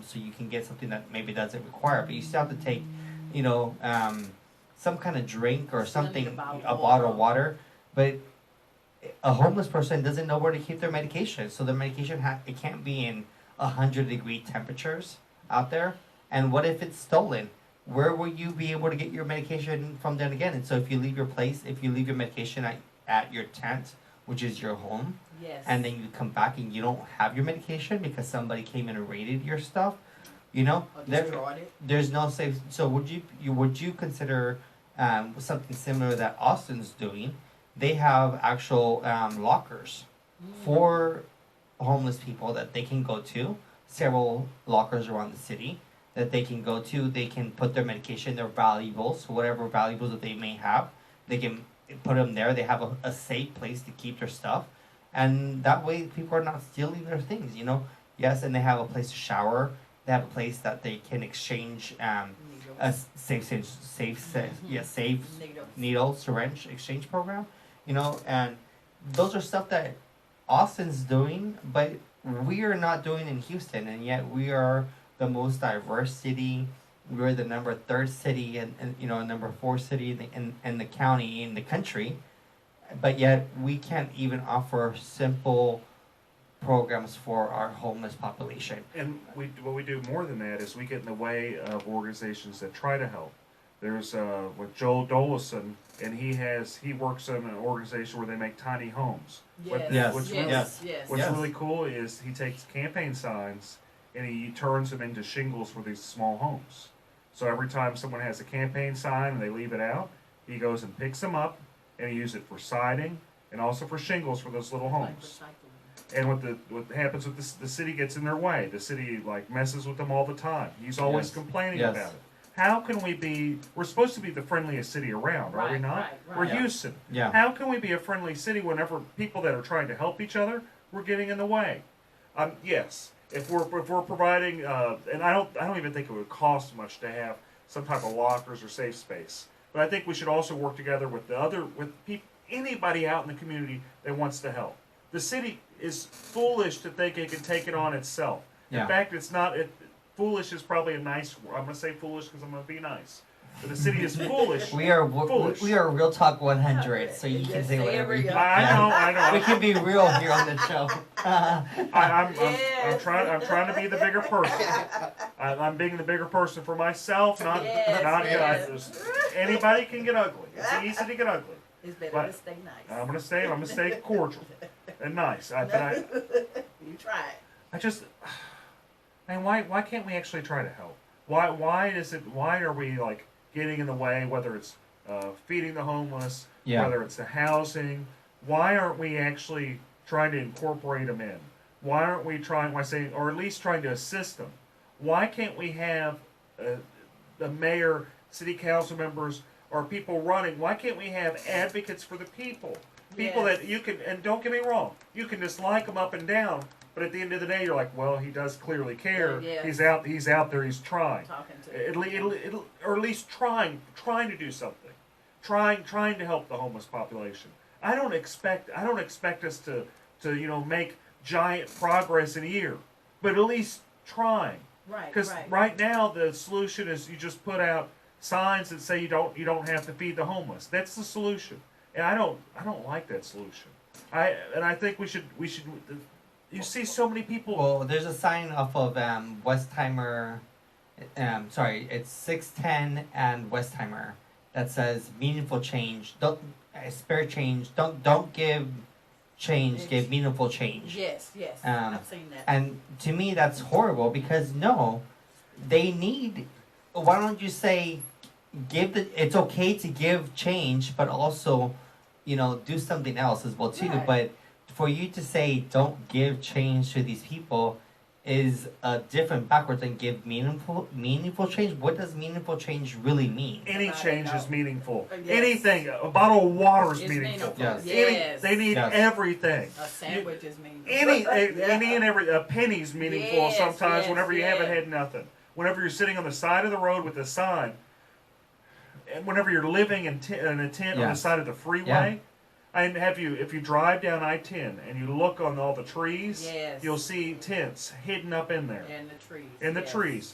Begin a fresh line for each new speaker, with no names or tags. so you can get something that maybe doesn't require, but you still have to take, you know, um, some kind of drink or
Still need
something,
a bottle
a
of
bottle of water. But a homeless person doesn't know where to keep their medication, so their medication ha- it can't be in a hundred degree temperatures out there. And what if it's stolen? Where will you be able to get your medication from then again? And so if you leave your place, if you leave your medication at, at your tent, which is your home,
Yes.
and then you come back and you don't have your medication because somebody came and raided your stuff, you know,
Or
there,
destroyed it.
there's no safe. So would you, you would you consider um, something similar that Austin's doing? They have actual um, lockers for homeless people that they can go to. Several lockers around the city that they can go to. They can put their medication, their valuables, whatever valuables that they may have. They can put them there. They have a, a safe place to keep their stuff, and that way people are not stealing their things. You know, yes, and they have a place to shower. They have a place that they can exchange um,
Needles.
a s- safe, safe, safe, safe yeah, safe
Needles.
needle syringe exchange program you know and those are stuff that austin's doing but we are not doing in houston and yet we are the most diverse city we're the number third city and, and you know number four city in the, in, in the county in the country but yet we can't even offer simple programs for our homeless population
And we, what we do more than that is we get in the way of organizations that try to help. There's uh, with Joel Dolison, and he has he works in an organization where they make tiny homes.
Yes.
What-
Yes.
What's,
Yes.
Really,
Yes. yes.
what's
Yes.
really cool is he takes campaign signs and he turns them into shingles for these small homes. So every time someone has a campaign sign and they leave it out, he goes and picks them up and he uses it for siding and also for shingles for those little
Like
homes.
recycling.
And what the what happens with this, the city gets in their way. The city like messes with them all the time. He's always
Yes.
complaining
Yes.
about it. How can we be? We're supposed to be the friendliest city around, are we
Right,
not?
right, right.
We're
Yeah.
Houston.
Yeah.
How can we be a friendly city whenever people that are trying to help each other we're getting in the way? Um, yes, if we're if we're providing, uh, and I don't I don't even think it would cost much to have some type of lockers or safe space. But I think we should also work together with the other with peop, anybody out in the community that wants to help. The city is foolish to think it can take it on itself.
Yeah.
In fact, it's not. It, foolish is probably a nice. word. I'm gonna say foolish because I'm gonna be nice. But the city is foolish.
we are we,
Foolish.
we are real talk 100 so you can
Yes,
say whatever you
there we go.
I I know. I know.
we can be real here on the show.
I, I'm, I'm, I'm
Yes.
trying. I'm trying to be the bigger person. I, I'm being the bigger person for myself, not
Yes,
not
yes.
just- anybody can get ugly. It's easy to get ugly.
It's better
But-
to stay nice.
I'm gonna stay. I'm gonna stay cordial and nice. I, but I,
you try it.
I just, and why why can't we actually try to help? Why why is it? Why are we like getting in the way? Whether it's uh, feeding the homeless,
Yeah.
whether it's the housing, why aren't we actually trying to incorporate them in? Why aren't we trying? Why saying or at least trying to assist them? Why can't we have uh, the mayor, city council members, or people running? Why can't we have advocates for the people? People
Yes.
that you can and don't get me wrong, you can dislike them up and down, but at the end of the day, you're like, well, he does clearly care.
Yeah.
He's out. He's out there. He's trying.
Talking to
At le- at le- at le- or at least trying, trying to do something, trying, trying to help the homeless population. I don't expect, I don't expect us to, to you know, make giant progress in a year, but at least trying.
Right.
Because
right.
right now the solution is you just put out signs that say you don't, you don't have to feed the homeless. That's the solution, and I don't, I don't like that solution. I and I think we should, we should. You see so many people.
Well, there's a sign off of um, Westheimer. Um, sorry, it's six ten and Westheimer that says meaningful change. Don't uh, spare change. Don't don't give change. Give meaningful change.
Yes. Yes.
Um,
I've seen that.
And to me, that's horrible because no, they need. Why don't you say, give the? It's okay to give change, but also, you know, do something else as well too.
Right.
But for you to say don't give change to these people is a different backwards than give meaningful meaningful change. What does meaningful change really mean?
Any
Right,
change
no.
is meaningful.
Yes.
Anything, a bottle of water is
It's
meaningful.
meaningful.
Yes.
Any-
Yes.
they need
Yes.
everything.
a sandwich is mean.
Any,
Yeah.
any and every, a penny's meaningful
Yes,
sometimes
yes,
whenever you haven't
yes.
had nothing. Whenever you're sitting on the side of the road with a sign, and whenever you're living in, t- in a tent on the
Yes.
side of the freeway, And have you, if you drive down I ten and you look on all the trees,
Yes.
you'll see tents hidden up in there
And the trees.
in the
yes.
trees.